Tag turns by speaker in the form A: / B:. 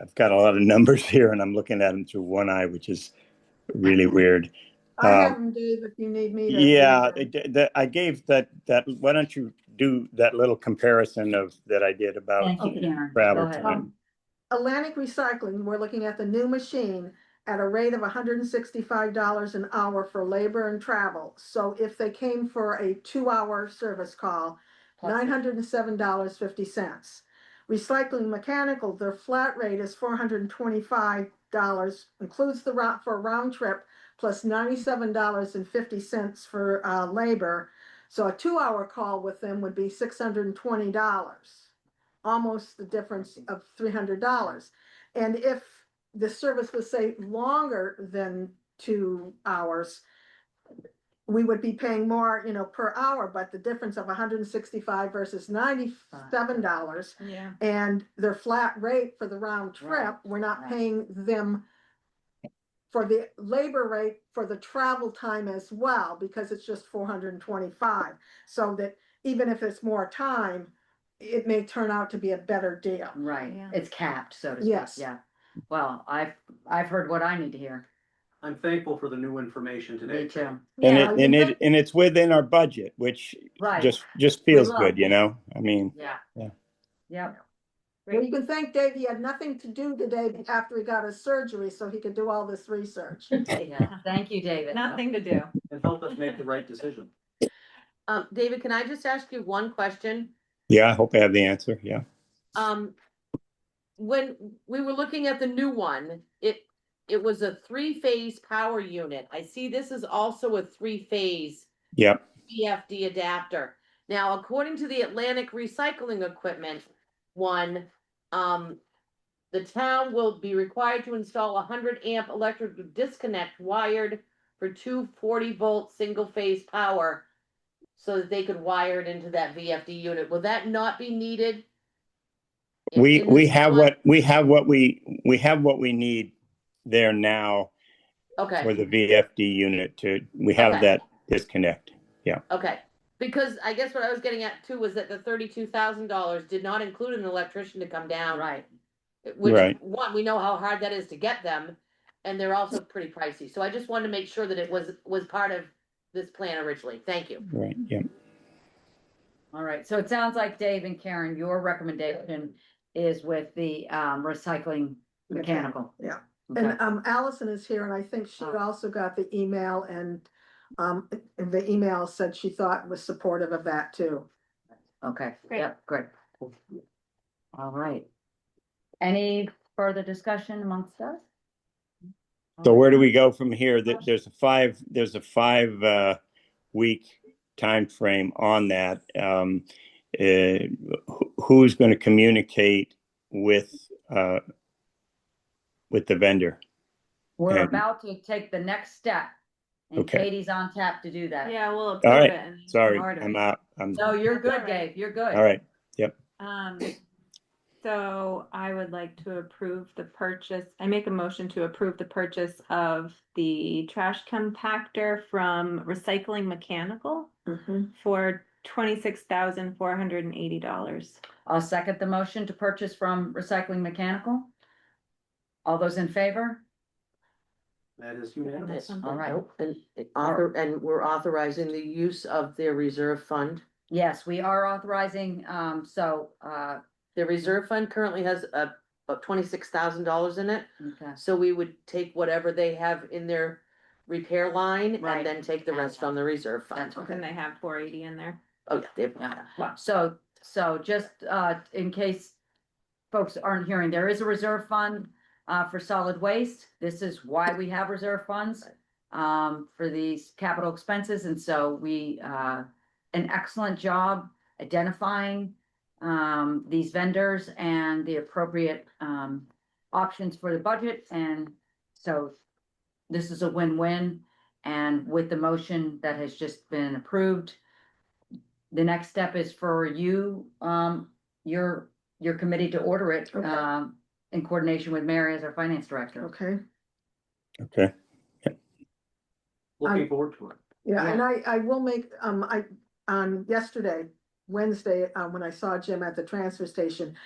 A: I've got a lot of numbers here and I'm looking at them through one eye, which is really weird.
B: I have
A: Um,
B: them, Dave, if you need me to.
A: Yeah, it- that, I gave that, that, why don't you do that little comparison of, that I did about
C: Thank you, Karen.
A: travel
C: Oh, Go ahead.
A: time?
B: Um, Atlantic Recycling, we're looking at the new machine at a rate of hundred and sixty-five dollars an hour for labor and travel. So if they came for a two-hour service call,
C: Oh,
B: nine hundred and seven dollars fifty cents. Recycling Mechanical, their flat rate is four hundred and twenty-five dollars, includes the route for a round trip, plus ninety-seven dollars and fifty cents for, uh, labor. So a two-hour call with them would be six hundred and twenty dollars almost the difference of three hundred dollars. And if the service was say longer than two hours, we would be paying more, you know, per hour, but the difference of hundred and sixty-five versus ninety-seven dollars
D: Yeah.
B: and their flat rate for the round
C: Right,
B: trip, we're not
C: right.
B: paying them for the labor rate for the travel time as well, because it's just four hundred and twenty-five. So that even if it's more time, it may turn out to be a better deal.
C: Right,
D: Yeah.
C: it's capped, so to speak,
B: Yes.
C: yeah. Well, I've, I've heard what I need to hear,
E: I'm thankful for the new information
C: me
E: today.
C: too,
A: And
B: Yeah,
A: it, and it, and it's within our budget, which
C: right,
A: just, just feels
C: love
A: good, you know? I mean,
C: yeah.
A: Yeah.
C: Yep,
B: Well, you can thank Dave, he had nothing to do today after he got his surgery, so he could do all this research.
C: yeah, thank you, David.
D: Nothing to do.
E: And help us make the right decision.
F: Um, David, can I just ask you one question?
A: yeah, I hope I have the answer, yeah.
F: Um, when we were looking at the new one, it, it was a three-phase power unit. I see this is also a three-phase
A: Yep,
F: BFD adapter. Now, according to the Atlantic Recycling Equipment one, um, the town will be required to install a hundred amp electrical disconnect wired for two 40 volt single phase power so that they could wire it into that VFD unit. Will that not be needed? in-
A: we,
F: in
A: we
F: this
A: have
F: one?
A: what, we have what we, we have what we need there now for
F: Okay,
A: the VFD unit to, we have
F: Okay.
A: that disconnect.
F: okay. Because I guess what I was getting at too was that the thirty-two thousand dollars did not include an electrician to come down.
C: Right,
F: Which,
A: Right.
F: one, we know how hard that is to get them, and they're also pretty pricey, so I just wanted to make sure that it was, was part of this plan originally, thank you.
A: Right, yeah.
C: all right, so it sounds like Dave and Karen, your recommendation is with the, um, recycling mechanical.
B: Yeah.
C: Okay.
B: And um, Allison is here, and I think she
C: Oh.
B: also got the email and um, the email said she thought was supportive of that too. uh,
C: Okay,
D: Great.
C: yep, great. All right. Any further discussion amongst us?
A: So where do we go from here? There- There's a five, there's a five uh, week frame on that. Um, uh, who- Who's going to communicate with, uh, with the vendor?
C: We're
A: And-
C: about to take the next step. And
A: Okay.
C: Katie's on tap to do that.
D: Yeah, we'll.
A: All
D: approve
A: right.
D: it and
A: Sorry,
D: order
A: I'm
D: it.
A: out. I'm,
C: No, you're
D: That's all
C: good,
D: right.
C: Dave, you're good.
A: all right.
D: Um, so I would like to approve the purchase, I make a motion to approve the purchase of the trash compactor from Recycling Mechanical for twenty-six thousand four hundred and eighty dollars.
C: I'll second the motion to purchase from Recycling Mechanical. All those in favor?
E: That is unanimous.
C: All right.
F: And, it author- and we're authorizing the use of their reserve fund.
C: Yes, we are authorizing, um, so, uh,
F: Their reserve fund currently has uh about twenty-six thousand dollars in it,
C: okay.
F: so we would take whatever they have in their repair line
C: Right.
F: and then take the rest from the reserve fund.
C: That's
D: And they have four eighty in there.
F: Oh, yeah, they've,
C: Yeah. So, so just, uh, in case folks aren't hearing, there is a reserve fund, uh, for solid waste. This is why we have reserve funds, um, for these capital expenses. And so we, uh, an excellent job identifying, um, these vendors and the appropriate, um, options for the budget. And so this is a win-win. And with the motion that has just been approved, the next step is for you, um, your, your committee to order it,
B: Okay.
C: um, in coordination with Mary as our finance director.
B: Okay,
A: Okay.
E: Looking forward to it.
B: yeah, and I, I will make, um, I, on yesterday, Wednesday, uh, when I saw Jim at the transfer station,